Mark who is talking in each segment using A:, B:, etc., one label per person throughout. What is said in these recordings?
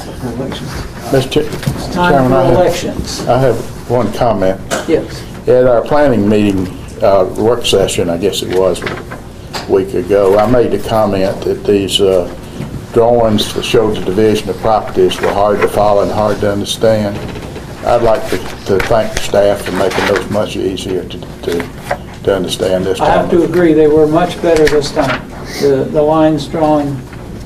A: elections.
B: Mr.
A: It's time
B: Chairman, I
A: for
B: have,
A: elections.
B: I have one comment.
A: Yes.
B: At our planning meeting, uh, work session, I guess it was, a week ago, I made the comment that these uh, drawings that showed the division of properties were hard to follow and hard to understand. I'd like to to thank the staff for making those much easier to, to, to understand this
A: I
B: time.
A: have to agree, they were much better this time. The, the lines drawn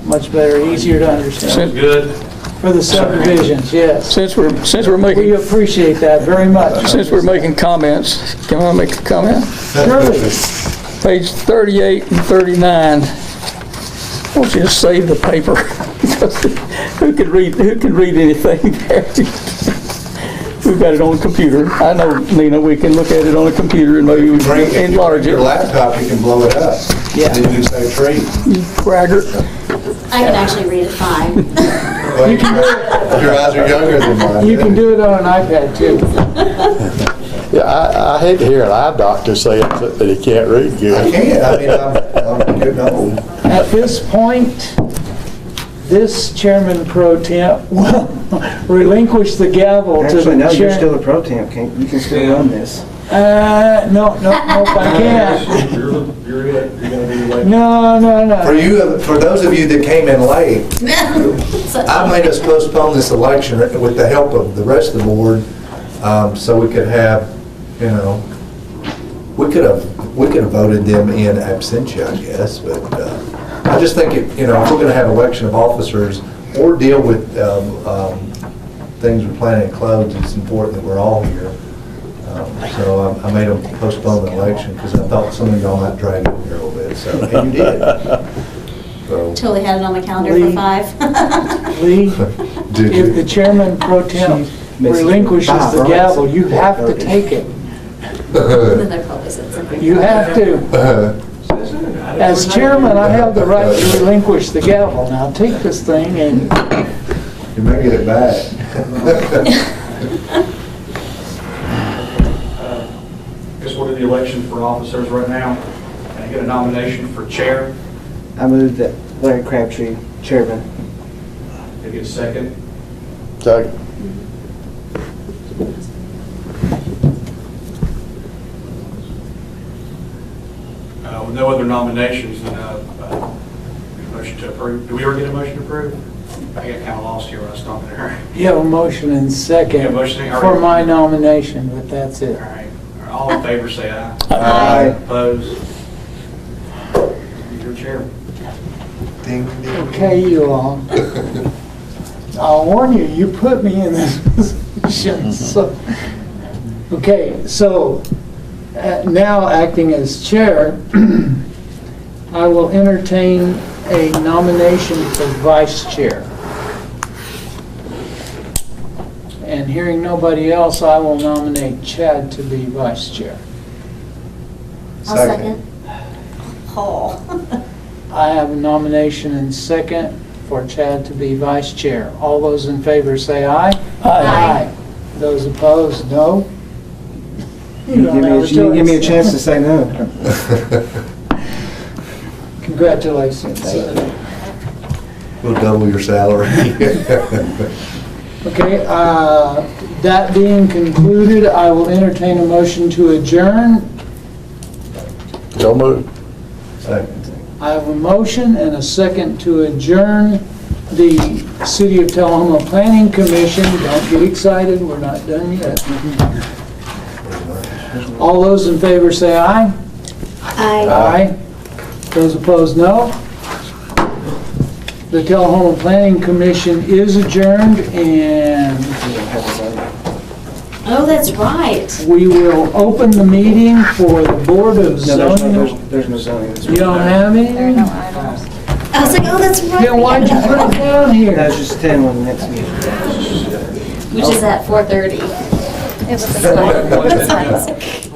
A: much better, easier to understand.
C: Since,
A: For the subdivisions, yes.
C: since we're, since we're
A: We
C: making,
A: appreciate that very much.
C: since we're making comments, can I make a comment?
A: Surely.
C: Page 38 and 39, won't you just save the paper? Who could read, who could read anything there? We've got it on a computer. I know, Nina, we can look at it on a computer and maybe we
D: Bring
C: can
D: if you bring
C: enlarge
D: your
C: it.
D: laptop, you can blow it up.
A: Yeah.
D: Then you say tree.
C: Braggart.
E: I can actually read it fine.
D: Well, Your your eyes are younger than mine.
A: You can do it on an iPad too.
B: Yeah, I, I hate to hear an eye doctor say that he can't read
D: I
B: good.
D: can, I mean, I'm, I'm getting old.
A: At this point, this chairman pro temp will relinquish the gavel to the chair.
F: Actually, no, you're still a pro temp, can't, you can still run this.
A: Uh, no, no, no, I can't. No, no,
D: For
A: no.
D: you, for those of you that came in late, I made us postpone this election with the help of the rest of the board, um, so we could have, you know, we could have, we could have voted them in absentia, I guess, but uh, I just think, it you know, if we're going to have election of officers or deal with um, um, things we're planning to close, it's important that we're all here. Um, So I- I made them postpone the election because I thought some of y'all might drag it here a little bit, so, and you did. So,
E: Totally had it on the calendar for five.
A: Lee,
D: Did you?
A: if the chairman pro temp relinquishes the gavel, you have to take it.
E: Then they probably said something.
A: You have to. As chairman, I have the right to relinquish the gavel. Now take this thing and
D: You may get it back.
G: Guess we're in the election for officers right now. Can I get a nomination for chair?
F: I move that Larry Crabtree, chairman.
G: Can I get a second?
B: So,
G: Uh, With no other nominations, then uh, uh, get a motion to approve. Do we ever get a motion to approve? I got kind of lost here when I was talking to her.
A: you have a motion and
G: Yeah,
A: second
G: motion and-
A: for my nomination, but that's it.
G: All right. All in favor, say aye.
D: Aye.
G: Opposed? Your chair.
D: Ding, ding.
A: Okay, you all. I'll warn you, you put me in this position, so. Okay, so, uh, now acting as chair, I will entertain a nomination for vice chair. And hearing nobody else, I will nominate Chad to be vice chair.
E: I'll second. Paul.
A: I have a nomination and second for Chad to be vice chair. All those in favor say aye.
E: Aye.
A: Those opposed, no.
F: You
A: don't
F: give me,
A: have
F: a- you give me a
A: choice.
F: chance to say no.
A: Congratulations.
D: We'll double your salary.
A: Okay, uh, that being concluded, I will entertain a motion to adjourn.
B: so moved.
D: Second.
A: I have a motion and a second to adjourn the City of Talahoma Planning Commission. Don't get excited, we're not done yet. All those in favor say aye.
E: Aye.
A: Aye. Those opposed, no. The Talahoma Planning Commission is adjourned, and
E: Oh, that's right.
A: we will open the meeting for the Board of
F: No, there's no,
A: Zoning.
F: there's- there's no zoning. this
A: You
F: week.
A: don't have any?
E: I was like, oh, that's right.
A: Then why'd you put it down here?
F: No, it's just ten on the next meeting.
E: Which is at four thirty.
H: It was a slight, it was a slight.